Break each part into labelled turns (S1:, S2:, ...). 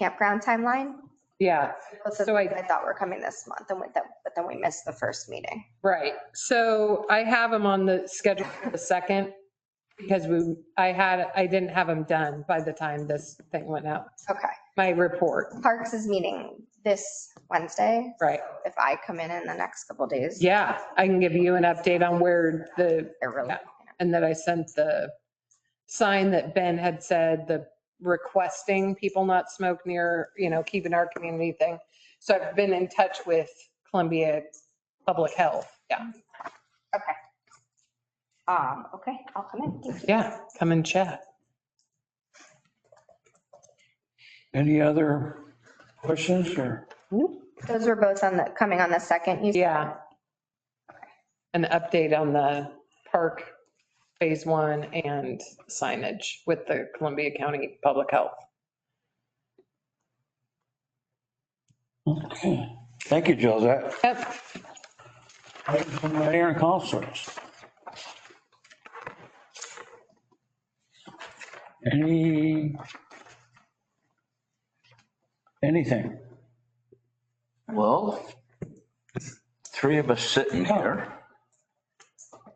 S1: campground timeline.
S2: Yeah,
S1: Both of
S2: So I-
S1: them I thought were coming this month and with them, but then we missed the first meeting.
S2: right. So I have them on the schedule for the second because we, I had, I didn't have them done by the time this thing went out,
S1: Okay.
S2: my report,
S1: Parks is meeting this Wednesday.
S2: right?
S1: If I come in in the next couple days.
S2: Yeah, I can give you an update on where the,
S1: They're really,
S2: Yeah. and that I sent the sign that Ben had said, the requesting people not smoke near, you know, keeping our community thing. So I've been in touch with Columbia Public Health. Yeah,
S1: um, okay, I'll come in. Thank you.
S2: yeah, come and chat.
S3: Any other questions or?
S1: Those were both on the, coming on the second. you said?
S2: Yeah. An update on the park phase one and signage with the Columbia County Public Health.
S3: Okay. Thank you, Josette.
S2: Yep.
S3: Mayor and councilors. Any? Anything?
S4: Well, three of us sitting
S3: Oh.
S4: here,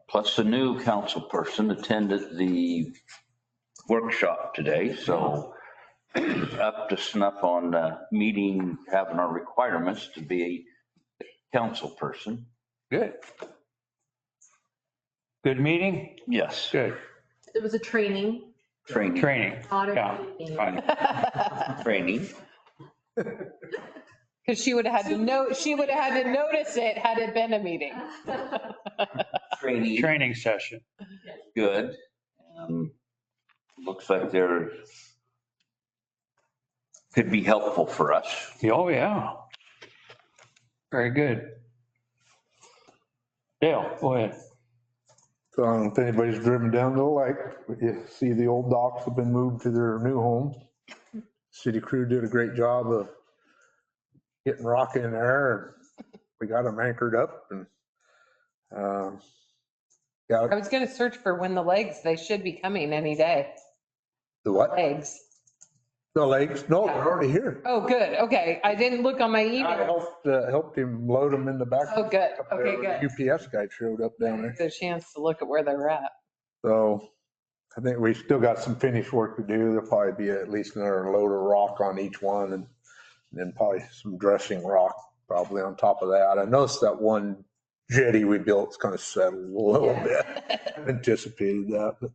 S4: plus the new council person attended the workshop today, so up to snuff on uh, meeting, having our requirements to be a council person.
S3: Good. Good meeting?
S4: Yes,
S3: Good.
S5: It was a training,
S4: training,
S3: Training.
S5: audit
S3: Yeah.
S5: training.
S3: Fine.
S4: training.
S2: Because she would have had to know, she would have had to notice it had it been a meeting.
S4: Training.
S3: Training session.
S4: good. Um, Looks like there could be helpful for us.
S3: Oh, yeah. Very good. Dale, go ahead.
S6: So I don't know if anybody's driven down to the lake, but you see the old docks have been moved to their new homes. City crew did a great job of getting rock in there and we got them anchored up and, uh,
S2: I
S6: got
S2: was going to search for when the legs, they should be coming any day.
S6: the what?
S2: Legs.
S6: The lakes? No, they're already here.
S2: Oh, good. Okay. I didn't look on my
S6: I
S2: email.
S6: helped, uh, helped him load them in the back.
S2: Oh, good.
S6: Up there,
S2: Okay, good.
S6: the UPS guy showed up down there.
S2: It's a chance to look at where they're at.
S6: So I think we still got some finished work to do. There'll probably be at least another load of rock on each one and then probably some dressing rock probably on top of that. I noticed that one jetty we built's kind of settled a little bit. Anticipated that. but-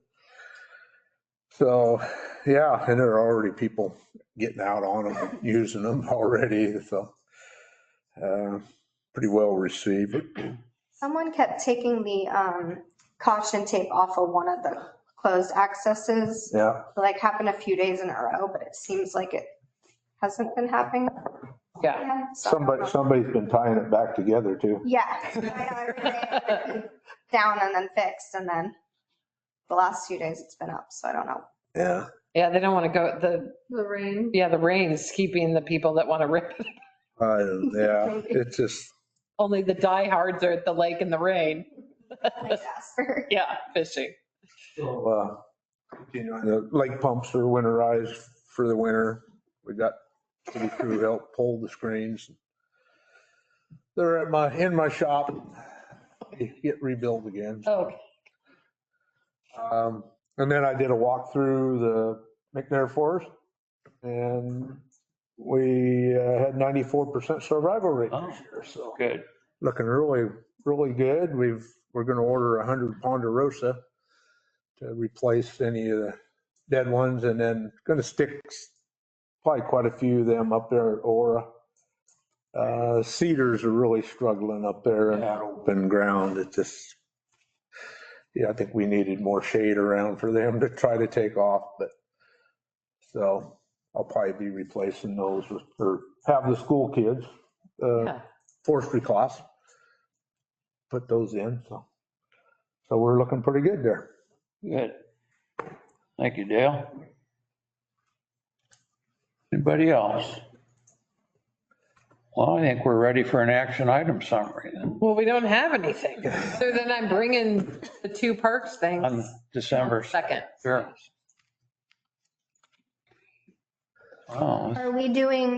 S6: So, yeah, and there are already people getting out on them, using them already. So uh, pretty well received.
S1: Someone kept taking the, um, caution tape off of one of the closed accesses.
S6: Yeah.
S1: Like happened a few days in a row, but it seems like it hasn't been happening.
S2: Yeah.
S1: again, so I don't know.
S6: Somebody, somebody's been tying it back together too.
S1: Yeah. I know every day it's been Down and then fixed and then the last few days it's been up, so I don't know.
S6: Yeah.
S2: Yeah, they don't want to go, the,
S5: The rain.
S2: yeah, the rain's keeping the people that want to rip. it.
S6: I don't- Yeah, it's just,
S2: Only the diehards are at the lake in the rain.
S1: Like Jasper.
S2: Yeah, fishing.
S6: uh, you know, the lake pumps are winterized for the winter. We got city crew help pull the screens. They're at my, in my shop, They get rebuilt again.
S2: Okay.
S6: Um, and then I did a walk through the McNair Forest and we uh, had 94% survival rate.
S3: Oh, good.
S6: looking really, really good. We've, we're going to order 100 Ponderosa to replace any of the dead ones and then going to stick s- probably quite a few of them up there at Aura. Uh, Cedars are really struggling up there in that open ground. It just, yeah, I think we needed more shade around for them to try to take off, but so I'll probably be replacing those with, or have the school kids, uh,
S2: Yeah.
S6: forestry class. Put those in, so. So we're looking pretty good there.
S3: Good. Thank you, Dale. Anybody else? Well, I think we're ready for an action item summary then
S2: Well, we don't have anything. So then I'm bringing the two parks
S3: on
S2: things
S3: December
S2: second.
S3: 3rd. Wow. Oh,
S1: Are we doing